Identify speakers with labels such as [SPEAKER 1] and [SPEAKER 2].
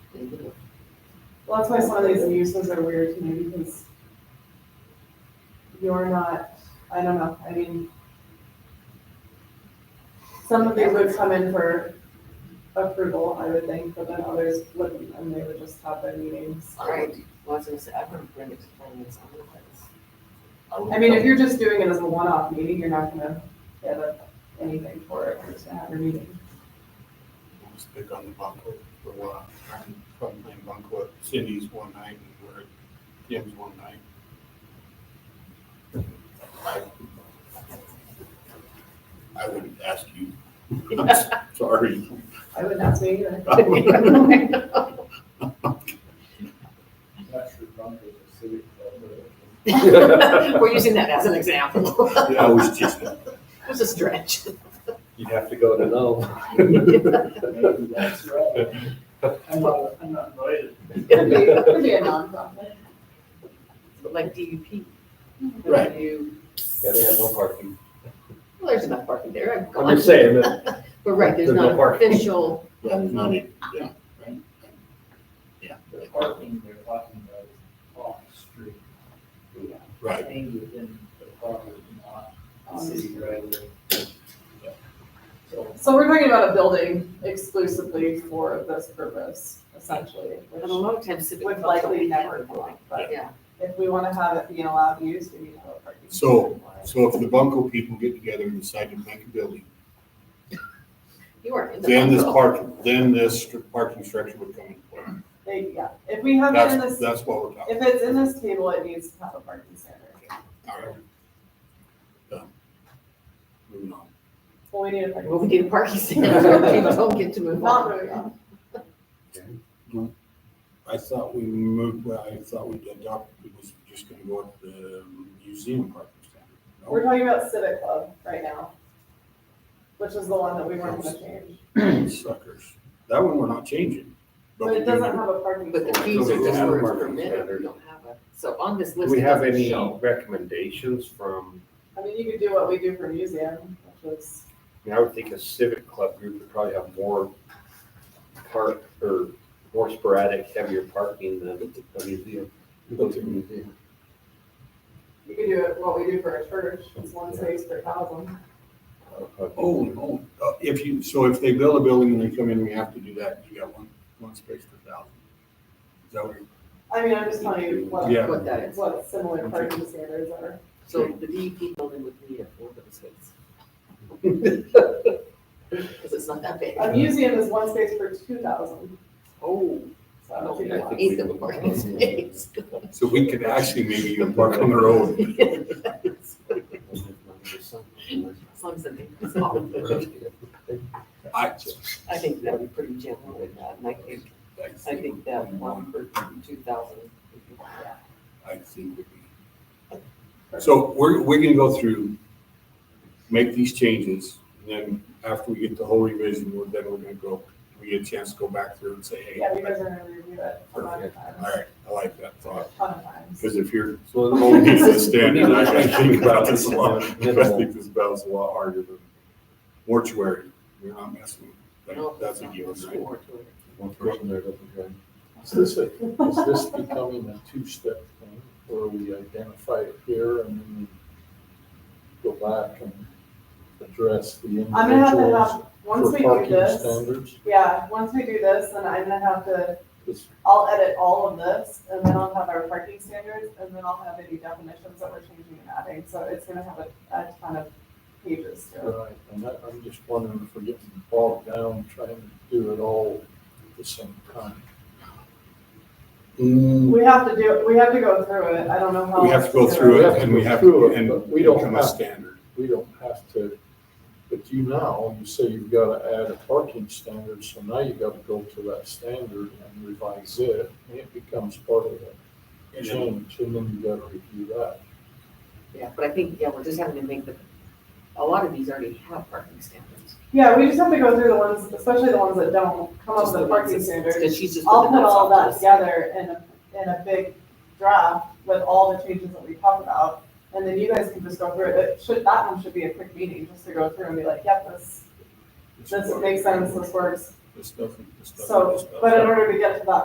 [SPEAKER 1] Well, that's why some of these uses are weird to me because you're not, I don't know, I mean, some of these would come in for approval, I would think, but then others wouldn't, and they would just have their meetings.
[SPEAKER 2] Right. Well, I was gonna say, I wouldn't bring it to finance otherwise.
[SPEAKER 1] I mean, if you're just doing it as a one-off meeting, you're not gonna get a- anything for it, just to have your meeting.
[SPEAKER 3] Just pick on the banquet for a while. I'm from playing banquet, Cindy's one night and we're at Kim's one night. I- I wouldn't ask you. I'm s- Sorry.
[SPEAKER 1] I wouldn't ask me either.
[SPEAKER 4] Not sure Bunker is a civic club, but
[SPEAKER 2] We're using that as an example.
[SPEAKER 3] I was just,
[SPEAKER 2] It was a stretch.
[SPEAKER 5] You'd have to go to know.
[SPEAKER 4] maybe that's right. I'm not, I'm not invited.
[SPEAKER 1] Could be, could be a nonprofit.
[SPEAKER 2] Like DUP.
[SPEAKER 3] Right.
[SPEAKER 2] You-
[SPEAKER 5] Yeah, they have no parking.
[SPEAKER 2] Well, there's enough parking there. I've
[SPEAKER 5] I'm
[SPEAKER 2] gone.
[SPEAKER 5] just saying that
[SPEAKER 2] But right, there's
[SPEAKER 5] There's no
[SPEAKER 2] not
[SPEAKER 5] parking.
[SPEAKER 2] official,
[SPEAKER 3] I'm not, in- yeah, right.
[SPEAKER 4] They're parking, they're talking about off the street.
[SPEAKER 3] right.
[SPEAKER 4] Staying within the property, not on
[SPEAKER 1] Um,
[SPEAKER 4] city driveway. So
[SPEAKER 1] So we're talking about a building exclusively for this purpose, essentially,
[SPEAKER 2] and a
[SPEAKER 1] which
[SPEAKER 2] lot of times civic
[SPEAKER 1] would
[SPEAKER 2] clubs.
[SPEAKER 1] likely
[SPEAKER 2] don't
[SPEAKER 1] never
[SPEAKER 2] have
[SPEAKER 1] go
[SPEAKER 2] parking.
[SPEAKER 1] But
[SPEAKER 2] Yeah,
[SPEAKER 1] if we want to have it be an allowed use, we need to have a parking.
[SPEAKER 3] So- So if the bunco people get together and decide to make a building,
[SPEAKER 2] you are in the.
[SPEAKER 3] then this
[SPEAKER 2] bubble.
[SPEAKER 3] parking, then this str- parking structure would come into play.
[SPEAKER 1] They- Yeah, if we have it in
[SPEAKER 3] That's,
[SPEAKER 1] this,
[SPEAKER 3] that's what we're talking
[SPEAKER 1] if it's in this table, it needs to have a parking standard.
[SPEAKER 3] about. All right. Done. Moving on.
[SPEAKER 1] Well, we need a parking.
[SPEAKER 2] Well, we need a parking stand. People don't get to move
[SPEAKER 1] Not
[SPEAKER 2] on.
[SPEAKER 1] really, no.
[SPEAKER 3] I thought we moved, well, I thought we adopted, it was just gonna go up the museum parking
[SPEAKER 1] we're
[SPEAKER 3] standard.
[SPEAKER 1] talking about Civic Club right now, which is the one that we weren't gonna change.
[SPEAKER 3] No, Suckers. That one we're not changing.
[SPEAKER 1] But it
[SPEAKER 3] we
[SPEAKER 1] doesn't
[SPEAKER 3] do-
[SPEAKER 1] have a parking.
[SPEAKER 2] But the
[SPEAKER 1] standard.
[SPEAKER 2] fees are
[SPEAKER 5] we
[SPEAKER 2] just
[SPEAKER 5] have
[SPEAKER 2] for
[SPEAKER 5] a parking
[SPEAKER 2] permitted,
[SPEAKER 5] standard.
[SPEAKER 2] we don't have a, so on this
[SPEAKER 5] Do
[SPEAKER 2] list.
[SPEAKER 5] we
[SPEAKER 2] it
[SPEAKER 5] have
[SPEAKER 2] doesn't
[SPEAKER 5] any
[SPEAKER 2] show.
[SPEAKER 5] recommendations from,
[SPEAKER 1] I mean, you could do what we do for museum, which is,
[SPEAKER 5] I mean, I would think a civic club group would probably have more park or more sporadic, heavier parking than a museum.
[SPEAKER 1] you could do it what we do for a church, it's one space per thousand.
[SPEAKER 3] Oh, no. Uh, If you, so if they build a building and they come in, we have to do that. You got one, one space per thousand. Is that what you're?
[SPEAKER 1] I mean, I'm just telling you what,
[SPEAKER 3] Yeah.
[SPEAKER 2] What that is.
[SPEAKER 1] what similar parking standards are.
[SPEAKER 2] So the DEP building would need a four of those spaces. Because it's not that big.
[SPEAKER 1] A museum is one space for two thousand,
[SPEAKER 2] Oh.
[SPEAKER 1] so I don't think it
[SPEAKER 2] Eighth of a parking space.
[SPEAKER 3] So we could actually maybe even park on the road.
[SPEAKER 2] As long as the name is small.
[SPEAKER 3] I,
[SPEAKER 2] I think that'd be pretty general with that, and I think, I think that one for two thousand.
[SPEAKER 3] I think would be. So we're, we're gonna go through, make these changes, and then after we get the whole revision, we're- then we're gonna go, we get a chance to go back through and say, hey.
[SPEAKER 1] Yeah, you guys are gonna review it a lot of
[SPEAKER 3] All
[SPEAKER 1] times,
[SPEAKER 3] right, I like that thought,
[SPEAKER 1] a ton of times.
[SPEAKER 3] because if you're
[SPEAKER 5] So the
[SPEAKER 3] holding
[SPEAKER 5] moment.
[SPEAKER 3] the standard, I gotta think about this a lot. I think this battle's a lot harder than mortuary, you're not messing with, that- that's a given, right?
[SPEAKER 6] One person there doesn't go. Is this, a- is this becoming a two-step thing, where we identify it here and then we go back and address the
[SPEAKER 1] I'm gonna have to
[SPEAKER 6] individuals
[SPEAKER 1] have, once
[SPEAKER 6] for
[SPEAKER 1] we do
[SPEAKER 6] parking
[SPEAKER 1] this,
[SPEAKER 6] standards?
[SPEAKER 1] yeah, once we do this, then I'm gonna have to,
[SPEAKER 6] This-
[SPEAKER 1] I'll edit all of this, and then I'll have our parking standards, and then I'll have any definitions that we're changing and adding, so it's gonna have a, a ton of pages to it.
[SPEAKER 6] Right, and that, I'm just wondering if we're getting bogged down trying to do it all at the same time.
[SPEAKER 3] Mm,
[SPEAKER 1] We have to do, we have to go through it, I don't know how.
[SPEAKER 3] We have to go
[SPEAKER 1] else do
[SPEAKER 3] through
[SPEAKER 6] We
[SPEAKER 3] it,
[SPEAKER 6] have to
[SPEAKER 3] and we
[SPEAKER 6] go
[SPEAKER 3] have to,
[SPEAKER 6] through it,
[SPEAKER 3] and
[SPEAKER 6] but we don't
[SPEAKER 3] become a
[SPEAKER 6] have-
[SPEAKER 3] standard.
[SPEAKER 6] We don't have to, but you now, you say you've got to add a parking standard, so now you got to go to that standard and revise it. And it becomes part of the change, and then you got to review that.
[SPEAKER 2] Yeah, but I think, yeah, we're just having to make the, a lot of these already have parking standards.
[SPEAKER 1] Yeah, we just have to go through the ones, especially the ones that don't come up
[SPEAKER 2] Just
[SPEAKER 1] with a
[SPEAKER 2] ones
[SPEAKER 1] parking
[SPEAKER 2] that-
[SPEAKER 1] standard.
[SPEAKER 2] Because she's just.
[SPEAKER 1] I'll
[SPEAKER 2] putting
[SPEAKER 1] put
[SPEAKER 2] those
[SPEAKER 1] all
[SPEAKER 2] off
[SPEAKER 1] that
[SPEAKER 2] this.
[SPEAKER 1] together in a, in a big draft with all the changes that we talk about. And then you guys can just go through it. It should, that one should be a quick meeting, just to go through and be like, yep, this, this makes sense, this works.
[SPEAKER 3] This doesn't, this doesn't,
[SPEAKER 1] So,
[SPEAKER 3] this doesn't.
[SPEAKER 1] But in order to get to that